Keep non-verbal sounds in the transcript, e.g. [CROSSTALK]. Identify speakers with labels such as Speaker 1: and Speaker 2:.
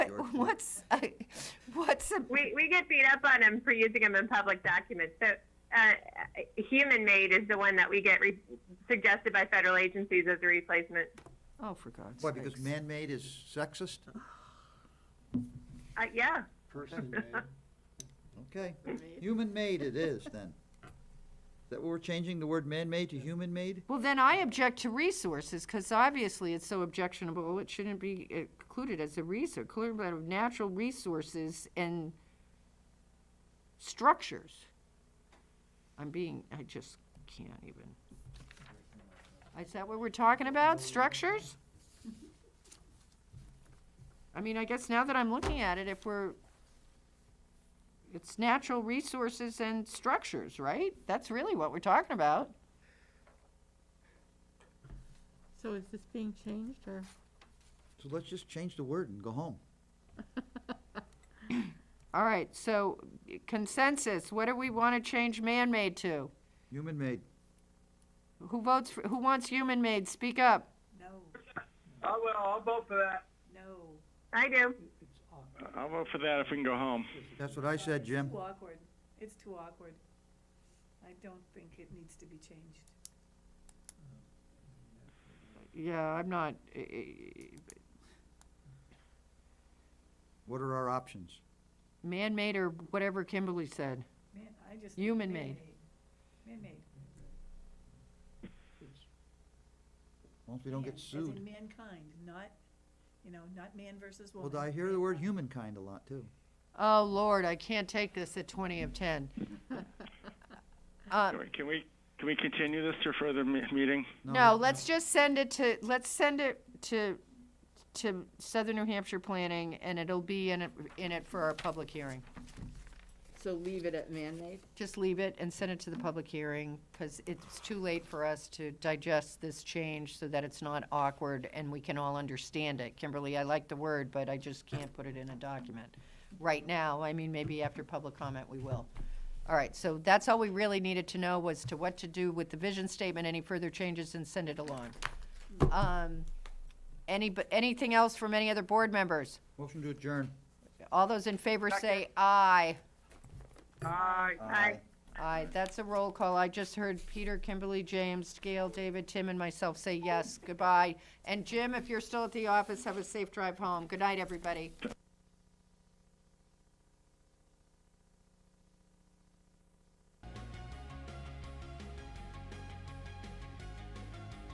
Speaker 1: What's a, [LAUGHS] what's a
Speaker 2: we, we get beat up on them for using them in public documents. So, uh, human made is the one that we get re- suggested by federal agencies as a replacement.
Speaker 1: oh for God's
Speaker 3: Why,
Speaker 1: sake!
Speaker 3: because man-made is sexist?
Speaker 2: Uh, yeah.
Speaker 4: Person made.
Speaker 3: Okay, human-made it is then. Is that what we're changing, the word man-made to human-made?
Speaker 1: Well, then I object to resources because obviously it's so objectionable. It shouldn't be included as a resource. Clear about of natural resources and structures. I'm being. I just can't even. Is that what we're talking about? Structures? I mean, I guess now that I'm looking at it, if we're it's natural resources and structures, right? That's really what we're talking about.
Speaker 5: So is this being changed or?
Speaker 3: So let's just change the word and go home.
Speaker 1: All right, so consensus, what do we want to change man-made to?
Speaker 3: Human-made.
Speaker 1: Who votes, for, who wants human-made? Speak up.
Speaker 6: No,
Speaker 7: I will. I'll vote for that.
Speaker 6: no.
Speaker 2: I do.
Speaker 7: I'll vote for that if we can go home.
Speaker 3: That's what I said, Jim.
Speaker 6: It's too awkward. It's too awkward. I don't think it needs to be changed.
Speaker 1: Yeah, I'm not, eh,
Speaker 3: What are our options?
Speaker 1: man-made or whatever Kimberly said.
Speaker 6: Man, I just.
Speaker 1: Human-made.
Speaker 6: Man-made.
Speaker 3: As long as we don't
Speaker 6: Man,
Speaker 3: get
Speaker 6: as in
Speaker 3: sued.
Speaker 6: mankind, not, you know, not man versus
Speaker 3: Well,
Speaker 6: woman.
Speaker 3: I hear the word
Speaker 6: mankind.
Speaker 3: humankind a lot too.
Speaker 1: Oh, Lord, I can't take this at 20 of 10. Uh,
Speaker 7: Can we can we continue this to a further me- meeting?
Speaker 1: No, let's just send it to, let's send it to, to Southern New Hampshire Planning, and it'll be in it, in it for our public hearing.
Speaker 5: So leave it at man-made?
Speaker 1: just leave it and send it to the public hearing, because it's too late for us to digest this change so that it's not awkward and we can all understand it. Kimberly, I like the word, but I just can't put it in a document right now. I mean, maybe after public comment, we will. All right, so that's all we really needed to know was to what to do with the vision statement, any further changes, and send it along. Um, Any, anything else from any other board members?
Speaker 3: Motion to adjourn.
Speaker 1: All those in favor say aye.
Speaker 2: Aye. Aye.
Speaker 1: Aye, that's a roll call. I just heard Peter, Kimberly, James, Gail, David, Tim, and myself say yes, goodbye. And Jim, if you're still at the office, have a safe drive home. Good night, everybody.